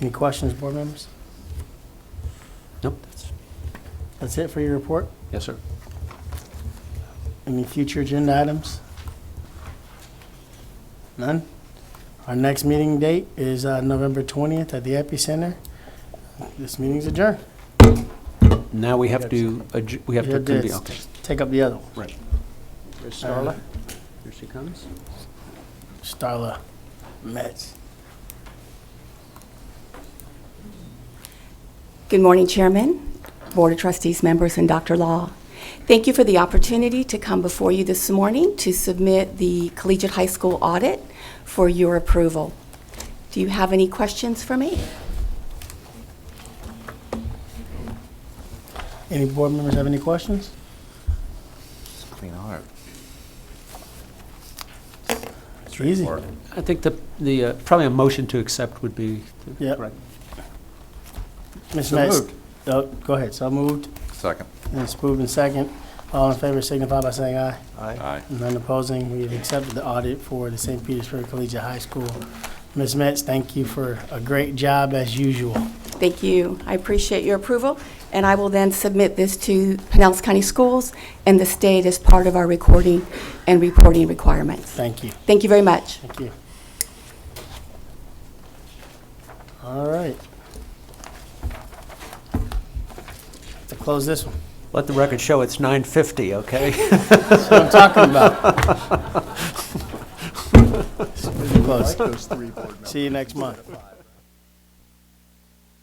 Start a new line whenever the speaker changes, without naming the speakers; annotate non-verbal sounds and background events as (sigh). Any questions, board members?
Nope, that's,
That's it for your report?
yes, sir.
Any future agenda items? None? Our next meeting date is uh, November 20th at the Epicenter. This meeting's adjourned.
Now we have to, adj- we have
Yeah,
to
it
convene,
is.
okay.
Take up the other one.
Right. There's
Starla.
Here she comes.
Starla Metz.
Good morning, Chairman, Board of Trustees members, and Dr. Law. Thank you for the opportunity to come before you this morning to submit the collegiate high school audit for your approval. Do you have any questions for me?
Any board members have any questions?
Clean art.
It's easy.
I think the, the, uh, probably a motion to accept would be the
Yep.
correct.
Ms.
So
Metz.
moved.
Oh, Go ahead. So moved.
Second.
And it's moved in second. All in favor signify by saying aye.
Aye.
None opposing, we have accepted the audit for the St. Petersburg Collegiate High School. Ms. Metz, thank you for a great job as usual.
Thank you. I appreciate your approval, and I will then submit this to Pinellas County Schools and the state as part of our recording and reporting requirements.
Thank you,
Thank you very much.
thank you. All right. To close this one.
Let the record show it's 9:50, okay? (laughs)
That's what I'm talking about. Close. See you next month.